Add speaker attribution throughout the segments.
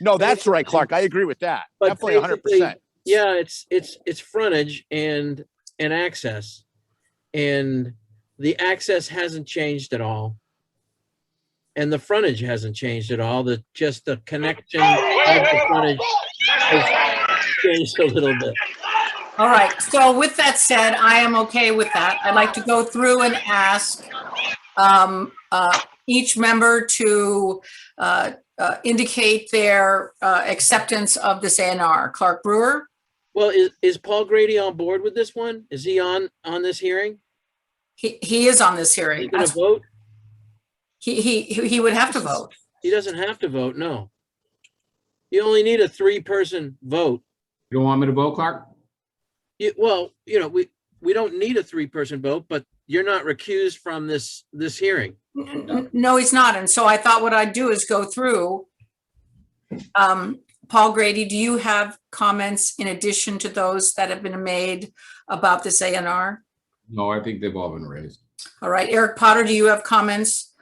Speaker 1: No, that's right, Clark. I agree with that.
Speaker 2: But
Speaker 1: Definitely hundred percent.
Speaker 2: basically, Yeah, it's, it's, it's frontage and, and access. And the access hasn't changed at all. And the frontage hasn't changed at all, the, just the connection of the frontage has changed a little bit.
Speaker 3: All right, so with that said, I am okay with that. I'd like to go through and ask um, uh, each member to uh, uh, indicate their uh, acceptance of this ANR. Clark Brewer?
Speaker 2: Well, is, is Paul Grady on board with this one? Is he on, on this hearing?
Speaker 3: He, he is on this
Speaker 2: Is he
Speaker 3: hearing.
Speaker 2: gonna vote?
Speaker 3: He, he, he would have to vote.
Speaker 2: He doesn't have to vote, no. You only need a three-person vote.
Speaker 4: You don't want me to vote, Clark?
Speaker 2: You, well, you know, we, we don't need a three-person vote, but you're not recused from this, this hearing.
Speaker 3: N- n- No, he's not. And so I thought what I'd do is go through. Um, Paul Grady, do you have comments in addition to those that have been made about this ANR?
Speaker 4: No, I think they've all been raised.
Speaker 3: All right, Eric Potter, do you have comments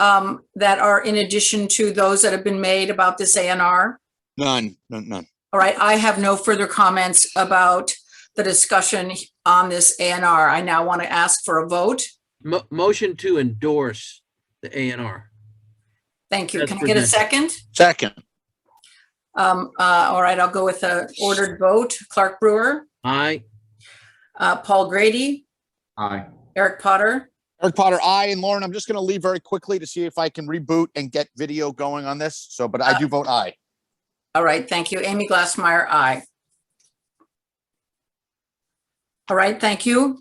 Speaker 3: um, that are in addition to those that have been made about this ANR?
Speaker 5: None, none, none.
Speaker 3: All right, I have no further comments about the discussion on this ANR. I now want to ask for a vote.
Speaker 2: Mo- motion to endorse the A and R.
Speaker 3: Thank you.
Speaker 2: That's
Speaker 3: Can I get a
Speaker 2: presented.
Speaker 3: second?
Speaker 5: Second,
Speaker 3: Um, uh, All right, I'll go with a ordered vote. Clark Brewer,
Speaker 2: Aye.
Speaker 3: uh, Paul Grady,
Speaker 4: Aye.
Speaker 3: Eric Potter.
Speaker 5: Eric Potter, I and Lauren, I'm just gonna leave very quickly to see if I can reboot and get video going on this. So, but I do vote aye.
Speaker 3: All right, thank you. Amy Glassmeyer, aye. All right, thank you.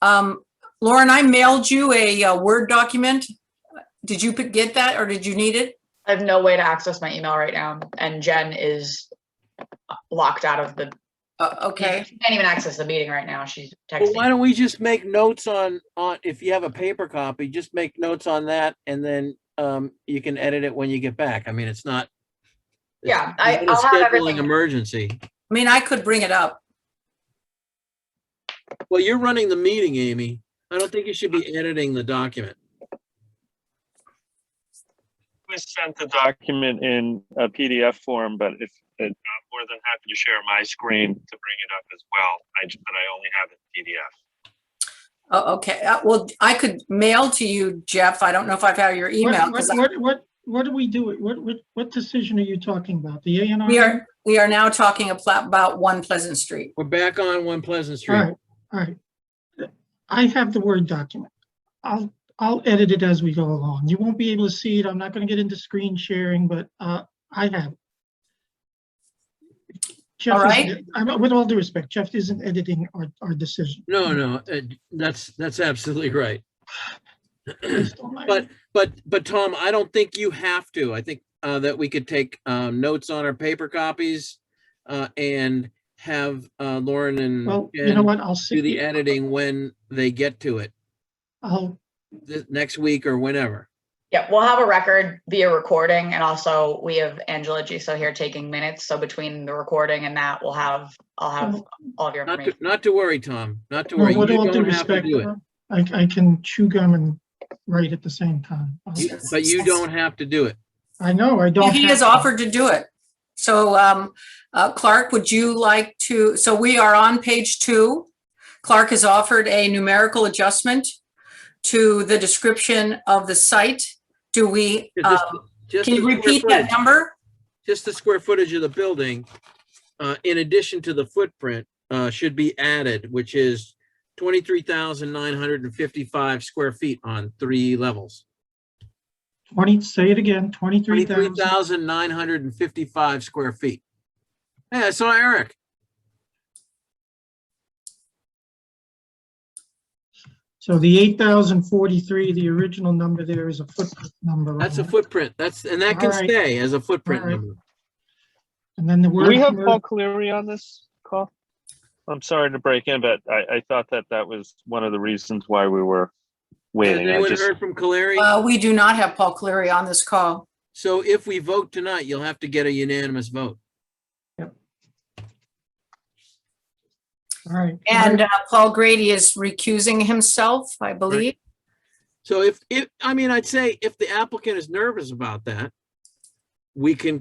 Speaker 3: Um, Lauren, I mailed you a uh, Word document. Did you p- get that or did you need it?
Speaker 6: I have no way to access my email right now, and Jen is locked out of the.
Speaker 3: Uh, Okay,
Speaker 6: She Can't even access the meeting right now. She's
Speaker 2: Well, why
Speaker 6: texting.
Speaker 2: don't we just make notes on, on, if you have a paper copy, just make notes on that and then, um, you can edit it when you get back. I mean, it's not. it's
Speaker 6: Yeah, I-
Speaker 2: not a
Speaker 6: I'll have
Speaker 2: scheduling
Speaker 6: everything.
Speaker 2: Emergency.
Speaker 3: I mean, I could bring it up.
Speaker 2: Well, you're running the meeting, Amy. I don't think you should be
Speaker 6: Uh-huh.
Speaker 2: editing the document.
Speaker 7: We sent the document in a PDF form, but if, uh, I'm more than happy to share my screen to bring it up as well. I, ju- but I
Speaker 3: Oh,
Speaker 7: only have it in PDF.
Speaker 3: Okay, Uh, well, I could mail to you, Jeff. I don't know if I've had your
Speaker 8: What-
Speaker 3: email.
Speaker 8: What,
Speaker 3: 'cause I-
Speaker 8: what, what, what do we do? What, what, what decision are you talking about? The A and R?
Speaker 3: We are, we are now talking apla- about One Pleasant Street.
Speaker 2: We're back on One Pleasant
Speaker 8: All
Speaker 2: Street.
Speaker 8: right, all right. I have the Word document. I'll, I'll edit it as we go along. You won't be able to see it. I'm not gonna get into screen sharing, but, uh, I have. it. Jeff
Speaker 3: All right.
Speaker 8: isn't- I'm- With all due respect, Jeff isn't editing our, our decision.
Speaker 2: No, no, uh, that's, that's absolutely right.
Speaker 8: Based on my-
Speaker 2: But, but, but Tom, I don't think you have to. I think uh, that we could take um, notes on our paper copies uh, and have uh, Lauren and
Speaker 8: Well, you know
Speaker 2: Jen
Speaker 8: what? I'll
Speaker 2: do the
Speaker 8: see,
Speaker 2: editing when they get to it,
Speaker 8: I'll,
Speaker 2: th- next week or whenever.
Speaker 6: Yeah, we'll have a record via recording, and also we have Angela Giso here taking minutes. So between the recording and that, we'll have, I'll
Speaker 2: uh,
Speaker 6: have all of your
Speaker 2: Oh, Not
Speaker 6: information.
Speaker 2: to, not to worry, Tom, not to
Speaker 8: well,
Speaker 2: worry. You
Speaker 8: with all due
Speaker 2: don't have to
Speaker 8: respect,
Speaker 2: do it.
Speaker 8: I, I can chew gum and write at the same time. I'll-
Speaker 2: You- But you don't have to do it.
Speaker 8: I know, I don't.
Speaker 3: He
Speaker 8: have
Speaker 3: has
Speaker 8: to.
Speaker 3: offered to do it. So um, uh, Clark, would you like to, so we are on page two. Clark has offered a numerical adjustment to the description of the site. Do we,
Speaker 2: Yeah, just-
Speaker 3: um,
Speaker 2: Just
Speaker 3: can
Speaker 2: the
Speaker 3: you
Speaker 2: square
Speaker 3: repeat
Speaker 2: footage-
Speaker 3: that number?
Speaker 2: Just the square footage of the building, uh, in addition to the footprint, uh, should be added, which is twenty-three thousand nine hundred and fifty-five square feet on three levels.
Speaker 8: 20, say it again, 23,000.
Speaker 2: 23,955 square feet. Hey, I saw Eric.
Speaker 8: So the 8,043, the original number there is a footprint number. on
Speaker 2: That's a
Speaker 8: it.
Speaker 2: footprint. That's, and that can
Speaker 8: Uh-huh. All right.
Speaker 2: stay as a footprint
Speaker 8: All right.
Speaker 2: number.
Speaker 8: And then the
Speaker 7: Do
Speaker 8: word.
Speaker 7: we have
Speaker 8: word-
Speaker 7: Paul Cleary on this call? I'm sorry to break in, but I, I thought that that was one of the reasons why we
Speaker 2: Has
Speaker 7: were waiting. I
Speaker 2: anyone
Speaker 7: just,
Speaker 2: heard from Caleri?
Speaker 3: Uh, We do not have Paul Cleary on this call.
Speaker 2: So if we vote tonight, you'll have to get a unanimous vote.
Speaker 8: All right.
Speaker 3: And uh, Paul Grady is recusing himself, I believe.
Speaker 2: So if, if, I mean, I'd say if the applicant is nervous about that, we can